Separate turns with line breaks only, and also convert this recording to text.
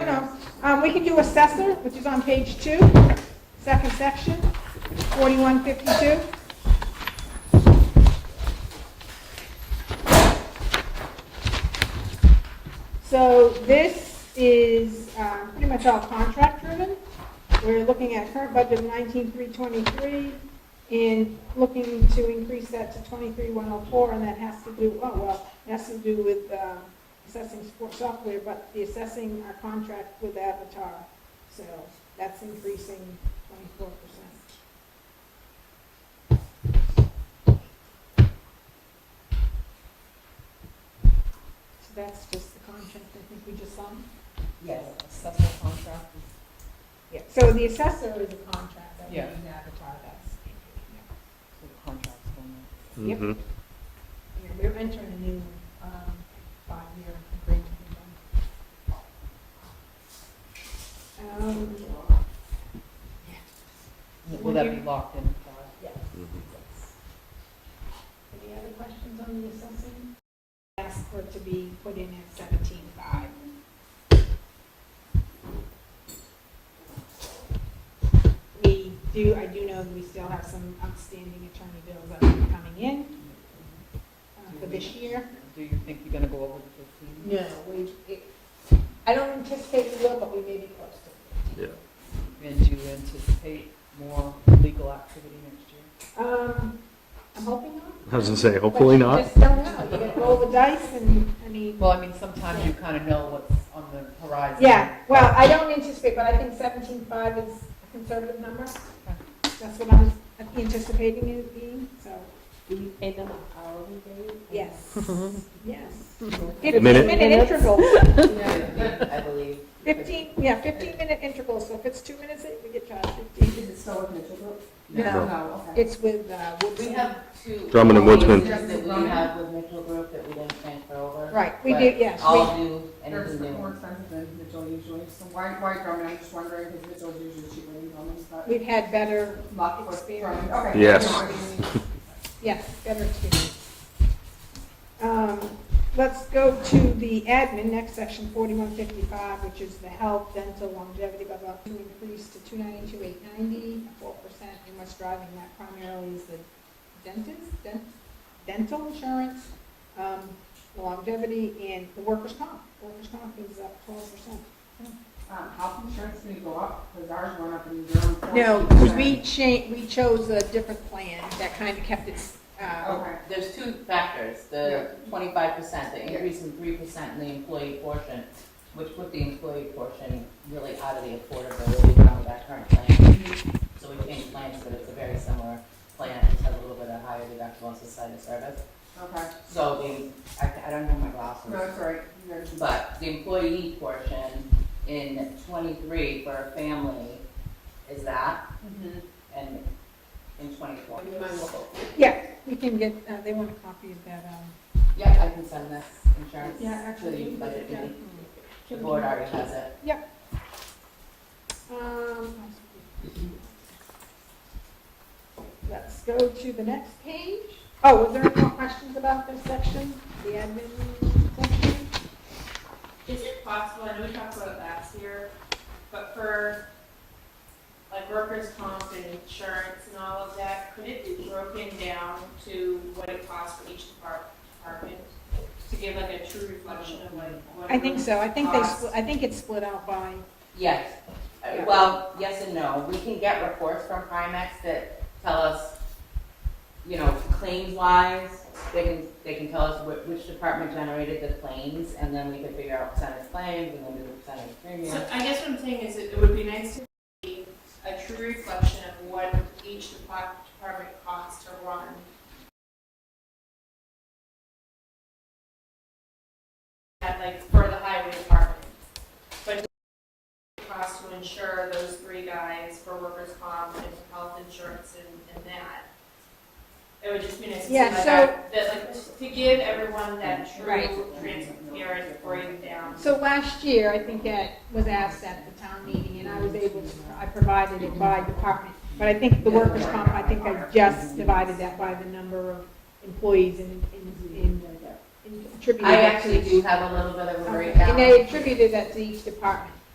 No, um, we can do assessor, which is on page two, second section, forty-one fifty-two. So this is, um, pretty much all contract-driven. We're looking at current budget of nineteen-three twenty-three and looking to increase that to twenty-three one oh four, and that has to do, oh, well, it has to do with, um, assessing support software, but the assessing our contract with Avatar. So that's increasing twenty-four percent. So that's just the contract, I think we just signed.
Yes, assessor contract.
Yeah, so the assessor is a contract that we
Yeah.
need to Avatar, that's,
So the contract's going
Yep. you
Mhm.
know, we're entering a new, um, five-year agreement with them. Um,
in. Will that be locked in?
yeah. Any other questions on the assessing? Ask for it to be put in at seventeen-five. We do, I do know that we still have some outstanding attorney bills that are coming in uh, for this year.
Do you think you're gonna go over the fifteen?
No, we, it- I don't anticipate we will, but we may be close to it.
Yeah.
And do you anticipate more legal activity next year?
Um, I'm hoping not.
I was gonna say, hopefully
But you
not.
Just don't know, you gotta roll the dice and, I mean.
Well, I mean, sometimes you kind of know what's on the horizon.
Yeah, well, I don't anticipate, but I think seventeen-five is a conservative number. That's what I'm anticipating it being, so,
Do you pay them an hourly rate?
yes, yes.
Minute.
Fifteen-minute intervals,
I believe.
fifteen, yeah, fifteen-minute intervals, so if it's two minutes, we get charged fifteen.
Is it still with Mitchell Group?
No.
No, okay.
It's with, uh,
We
Woodson.
have two.
Drummond and Woodsman.
policies That we have with Mitchell Group that we didn't transfer over.
Right, we
but
do, yes, we,
I'll do
They're
anything
more
new.
expensive than Mitchell usually, so why, why Drummond, I'm just wondering, because Mitchell's usually cheaper than Drummond's, but
we've had better,
lucky for Drummond, okay.
Yes.
No, I mean,
yes, better experience. Um, let's go to the admin, next section, forty-one fifty-five, which is the health, dental, longevity, blah, blah, to increase to two ninety-two, eight ninety, four percent, and what's driving that primarily is the dentist, dent, dental insurance, um, longevity, and the workers' comp. Workers' comp is up twelve percent.
Um, health insurance is gonna go up, because ours went up in Durham.
No,
14%.
we cha, we chose a different plan that kind of kept it,
Oh,
uh,
Okay,
There's two factors,
Yeah.
the twenty-five percent, the increase in three percent in the employee portion, which put the employee portion really out of the affordability realm of that current plan. So we changed plans, but it's a very similar plan, it has a little bit of higher deductible on society service.
okay,
So the, I, I don't have my
no,
glasses,
that's all right, You're-
but the employee portion in twenty-three for a family is that,
Mm-hmm.
and in twenty-four.
yeah, we can get, uh, they want a copy of that, um.
Yeah, I can send this insurance
Yeah,
to
actually,
the
you can
budget
put it
committee.
down.
The board already has it.
Um, Let's go to the next page. Oh, was there any more questions about this section, the admin section?
Is it possible, I know we talked about it last year, but for like workers' comp and insurance and all of that, could it be broken down to what it costs for each depart- department? To give like a true reflection of like what.
I think
it
so, I think they, split- I think it's split out by,
Yes, Uh, well, yes and no. We can get reports from Primex that tell us, you know, claims wise, they can, they can tell us whi- which department generated the claims, and then we can figure out percentage claims, and then do the percentage
was.
premium.
So I guess what I'm saying is it it would be nice to see a true reflection of what each depart- department costs to run. At like for the highway department. But it costs to insure those three guys for workers' comp and health insurance and, and that. It would just be nice to see
Yeah,
like
so-
that, that, like to give everyone that
Right.
true transparent breakdown.
so last year, I think that was asked at the town meeting, and I was able to, I provided it by department. But I think the workers' comp, I think I just divided that by the number of employees and, and, and- and attributed.
I
that to
actually
each-
do have a little bit of a
Okay, And
breakdown.
they attributed that to each department.